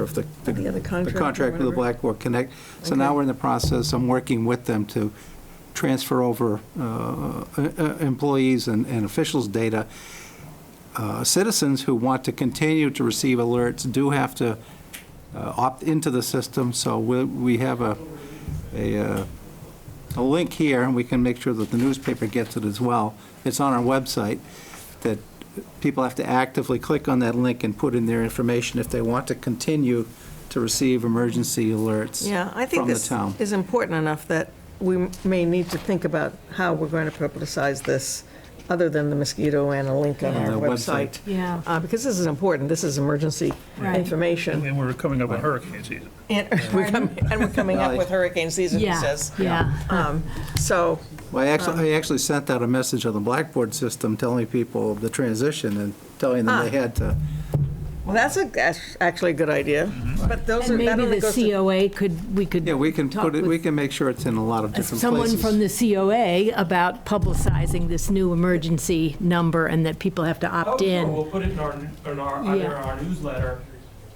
of the, Or the other contract or contract with the whatever. Blackboard Connect. So now Okay. we're in the process, I'm working with them to transfer over uh, uh, uh, employees and and officials' data. Uh, Citizens who want to continue to receive alerts do have to uh, opt into the system, so we we have a, a uh, a link here, and we can make sure that the newspaper gets it as well. It's on our website, that people have to actively click on that link and put in their information if they want to continue to receive emergency alerts Yeah, I think from the this town. is important enough that we may need to think about how we're going to publicize this, other than the mosquito and a link on On our the website. website. Yeah. Uh, Because this is important, this is emergency Right. information. And we're coming up on hurricane season. And we're coming, and we're coming up with hurricane season, he Yeah, says. yeah. Um, So, Well, I uh, actually, I actually sent out a message on the Blackboard system telling people the transition and telling them they Ah. had to. well, that's a, that's actually a good idea, Mm-hmm. but those are, And that maybe only the goes to. COA could, we could. Yeah, we can talk put it, with we can make sure it's in a lot of different Someone places. from the COA about publicizing this new emergency number and that people have to Oh, opt sure, in. We'll put it in our, in our, either Yeah. our newsletter.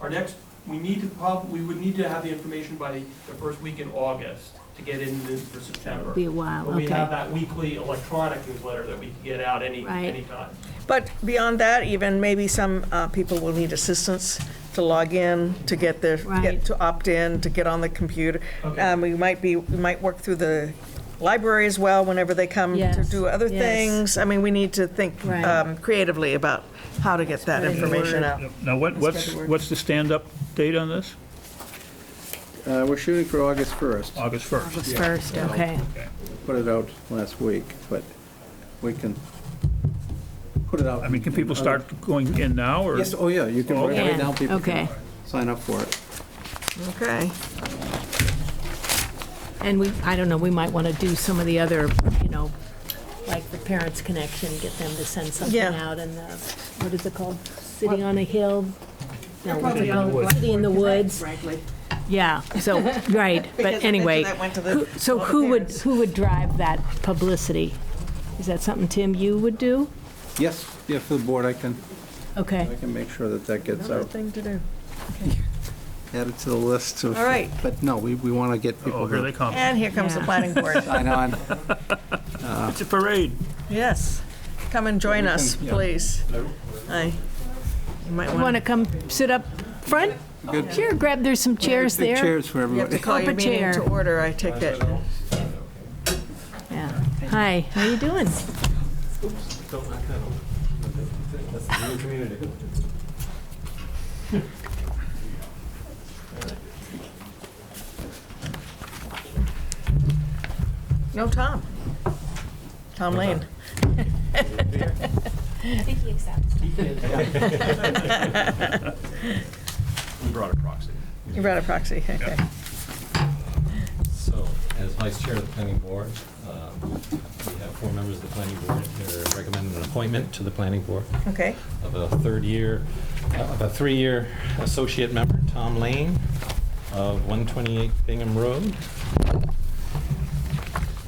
Our next, we need to prob, we would need to have the information by the first week in August to get in this for September. Be a while, But we okay. have that weekly electronic newsletter that we can get out any, Right. anytime. But beyond that, even maybe some uh, people will need assistance to log in, to get their, Right. get to opt in, to get on the computer. Okay. Um, We might be, we might work through the library as well whenever they come to Yes, do other yes. things. I mean, we need to think Right. um, creatively about how to get that Spread the information out. Now, what, what's, better word. what's the stand-up date on this? Uh, We're shooting for August 1st. August 1st. August first, okay. Put it out last week, but we can put it out. I mean, can in people other- start going in now, or? Yes, oh yeah, you can, Okay. right now people Okay. can sign up for it. Okay. And we, I don't know, we might want to do some of the other, you know, like the Parents Connection, get them to send something Yeah. out and the, what is it called? City on a Hill? No, City in the Woods. City in the Woods. Yeah, so, right, Because but I anyway. mentioned that went to the- who- So all the who would, parents. who would drive that publicity? Is that something, Tim, you would do? Yes, yeah, for the board, I can, Okay, I can make sure that that gets Another out, thing to do. added to the list of. All right. But no, we, we want to get Oh, people here they to come. And here comes the Yeah. planning board. sign on. It's a parade. Yes. Come and join us, Yeah. please. Aye. You might want want to come sit up front? Good. Sure, grab, there's some chairs Big there. Chairs for to everybody. call your Up a meeting to chair. order, I take it. Yeah. Hi, how you doing? No, Tom. Tom Lane. I think he accepts. We brought a proxy. You brought a proxy, okay. So, as vice chair of the planning board, uh, we have four members of the planning board. They're recommending an appointment to the planning board Okay, of a third year, uh, of a three-year associate member, Tom Lane, of 128 Bingham Road.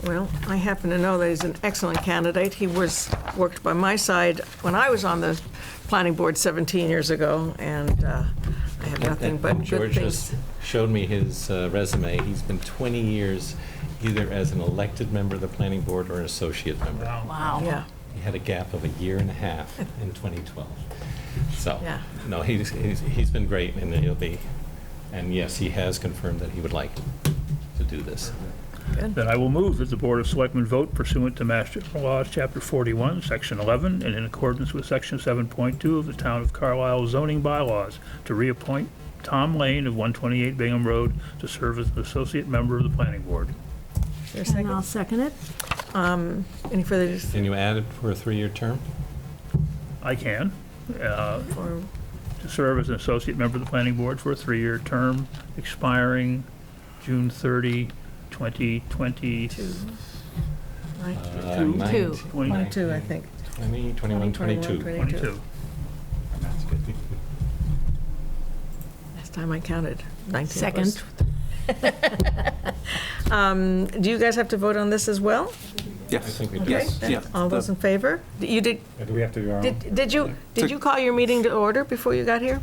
well, I happen to know that he's an excellent candidate. He was, worked by my side when I was on the planning board 17 years ago, and uh, I have nothing And but good George things. just showed me his uh, resume. He's been 20 years either as an elected member of the planning board or an associate member. Wow. Yeah, He had a gap of a year and a half in 2012. So, Yeah. no, he's, he's, he's been great, and he'll be, and yes, he has confirmed that he would like to do this. Then I will move that the Board of Selectmen vote pursuant to Mass General Laws, Chapter 41, Section 11, and in accordance with Section 7.2 of the Town of Carlisle zoning bylaws, to reappoint Tom Lane of 128 Bingham Road to serve as an associate member of the planning board. Is there a And second? I'll second it. Any further, dis- Can you add it for a three-year term? I can, uh, or- to serve as an associate member of the planning board for a three-year term expiring June 30, 2020. right, Uh, Two. nine- Two. One, nine- two, I think. Twenty, twenty-one, twenty-two. 22. Last time I counted, 19 of us. Second. Um, Do you guys have to vote on this as well? I Yes, think we Okay. do. yes, then yeah. All those in favor? You did, Do we have to um, do our Did, did you, did you call your meeting to order before you got here?